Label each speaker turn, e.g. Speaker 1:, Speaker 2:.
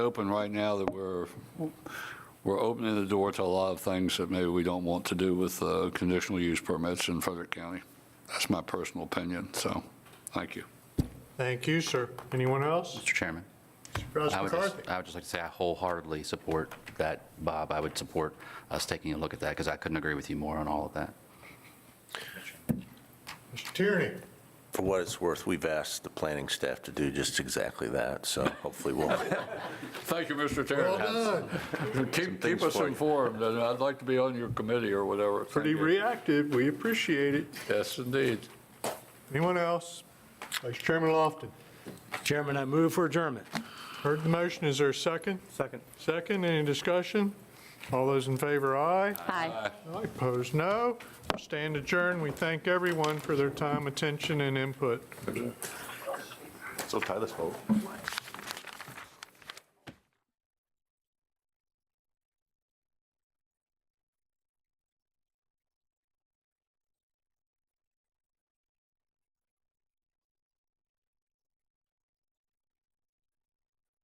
Speaker 1: open right now that we're, we're opening the door to a lot of things that maybe we don't want to do with uh, conditional use permits in Frederick County. That's my personal opinion, so, thank you.
Speaker 2: Thank you, sir. Anyone else?
Speaker 3: Mr. Chairman, I
Speaker 2: Ross
Speaker 3: would just,
Speaker 2: McCarthy?
Speaker 3: I would just like to say I wholeheartedly support that, Bob. I would support us taking a look at that because I couldn't agree with you more on all of that.
Speaker 2: Mr. Tierney?
Speaker 4: For what it's worth, we've asked the planning staff to do just exactly that, so hopefully we'll,
Speaker 1: Thank you, Mr.
Speaker 2: Well
Speaker 1: Terry.
Speaker 2: done.
Speaker 1: Keep,
Speaker 4: things
Speaker 1: keep us
Speaker 4: for you.
Speaker 1: informed, and I'd like to be on your committee or whatever.
Speaker 2: Pretty
Speaker 1: Thank you.
Speaker 2: reactive. We appreciate it.
Speaker 1: Yes, indeed.
Speaker 2: Anyone else? Vice Chairman Lofton?
Speaker 5: Chairman, I move for adjournment.
Speaker 2: Heard the motion. Is there a second?
Speaker 5: Second.
Speaker 2: Second, any discussion? All those in favor, aye.
Speaker 6: Aye.
Speaker 2: Aye, Opposed, no. Stand adjourned. We thank everyone for their time, attention, and input.
Speaker 7: So tie this vote.